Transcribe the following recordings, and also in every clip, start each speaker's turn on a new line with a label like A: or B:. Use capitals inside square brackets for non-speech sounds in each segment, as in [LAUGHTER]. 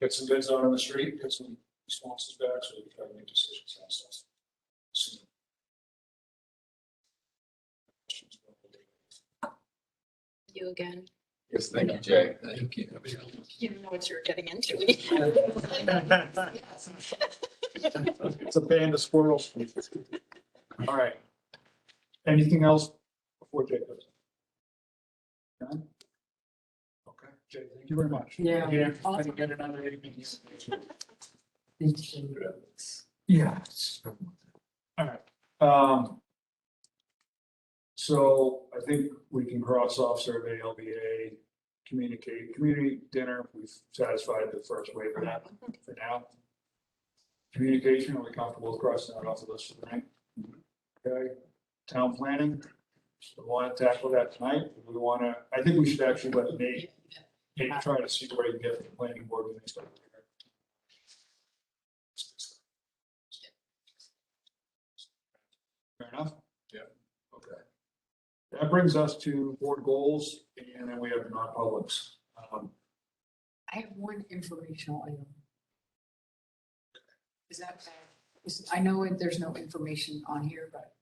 A: get some bids out on the street, get some responses back, so we can try to make decisions on stuff. soon.
B: You again.
C: Yes, thank you, Jay.
D: Thank you.
B: You know what you're getting into. [LAUGHS]
A: It's a band of squirrels. All right. Anything else before Jay goes? None? Okay, Jay, thank you very much.
E: Yeah.
A: Again, I didn't get another eight minutes. Yeah. All right, um. So I think we can cross off survey, LBA, communicate, community dinner, we've satisfied the first wave of that for now. Communication, are we comfortable with crossing that off the list for tonight? Okay, town planning, we want to tackle that tonight, we want to, I think we should actually let Nate, Nate try to see where he can get the planning board. with this. Fair enough?
C: Yeah.
A: Okay. That brings us to board goals, and then we have the non-publics. Um,
E: I have one informational item. Is that bad? Is- I know it- there's no information on here, but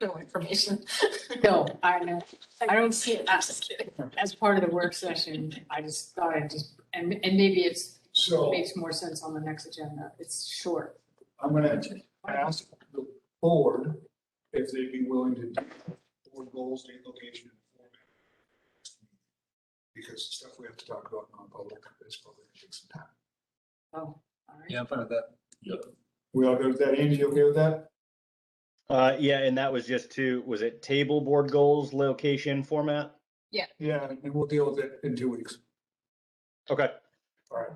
B: No information.
E: [LAUGHS] no, I know, I don't see it
B: I'm
E: as,
B: just kidding.
E: as part of the work session. I just thought I'd just, and, and maybe it's,
A: So
E: makes more sense on the next agenda. It's short.
A: I'm gonna ask the board if they'd be willing to do board goals, date, location, and format. Because the stuff we have to talk about in non-public is probably gonna take some time.
E: All right.
D: Yeah, I'm fine with that.
A: We all good with that? Andy, you okay with that?
F: Uh, yeah, and that was just to, was it table board goals, location, format?
A: Yeah, and we'll deal with it in two weeks.
F: Okay.
A: All right.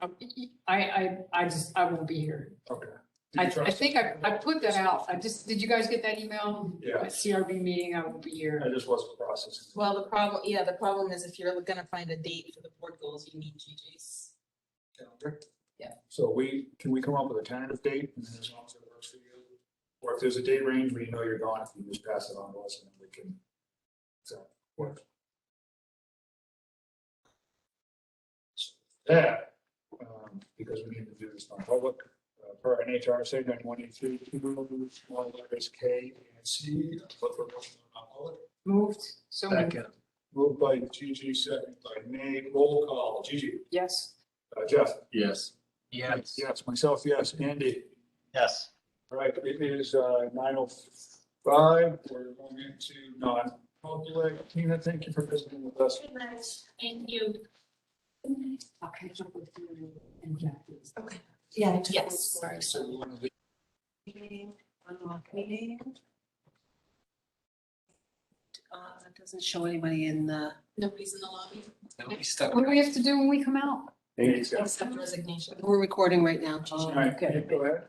E: Um, y- y- I, I, I just, I won't be here.
A: Okay.
E: I, I think I, I put that out. I just, did you guys get that email?
A: Yeah.
E: CRB meeting, I won't be here.
A: I just wasn't processing.
B: Well, the problem, yeah, the problem is if you're gonna find a date for the board goals, you need GG's.
A: calendar.
B: Yeah.
A: So we, can we come up with a tentative date and then as long as it works for you? Or if there's a date range where you know you're gone, if you just pass it on to us and then we can. So, work. So, That, um, because we need to do this on public, uh, per NHRSA section one eight three, two, small letters K and C, but for non-public.
E: Moved, so moved.
D: Second,
A: Moved by Gigi, second by Nate, roll call, Gigi,
E: yes.
A: uh, Jeff.
C: Yes.
D: yes.
A: Yes, myself, yes, Andy.
F: Yes.
A: All right, it is nine oh five, we're going into non-public. Tina, thank you for visiting with us.
G: Good night, thank you.
E: I'll catch up with you and Jackie.
G: Yeah.
B: Yes. Sorry.
A: So we want to leave
G: Uh, Doesn't show anybody in the.
B: Nobody's in the lobby
D: Now we stuck.
E: What do we have to do when we come out?
A: Thanks, guys.
B: except resignation.
G: We're recording right now.
A: All right, Nate, go ahead.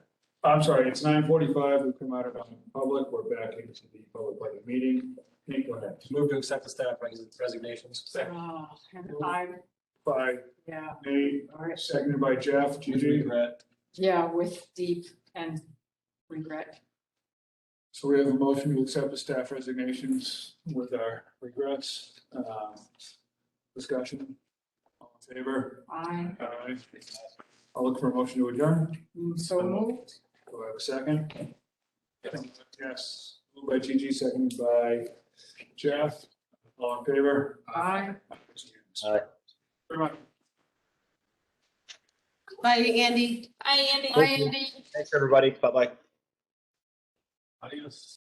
A: I'm sorry, it's nine forty-five, we've come out of non-public, we're back into the public budget meeting. Nate, go ahead.
D: Move to accept the staff resignations. Second.
E: Oh, I,
A: By
E: yeah,
A: Nate,
E: all right.
A: seconded by Jeff, Gigi.
E: Yeah, with deep and regret.
A: So we have a motion to accept the staff resignations with our regrets. Um, Discussion, all in favor?
E: I
A: Aye. I'll look for a motion to adjourn.
E: am so moved.
A: Do I have a second? Yes. Moved by Gigi, seconded by Jeff. All in favor?
E: I.
F: Aye.
A: Very much.
G: Bye, Andy.
B: Hi, Andy.
F: Thank you. Thanks, everybody. Bye-bye.
A: Adios.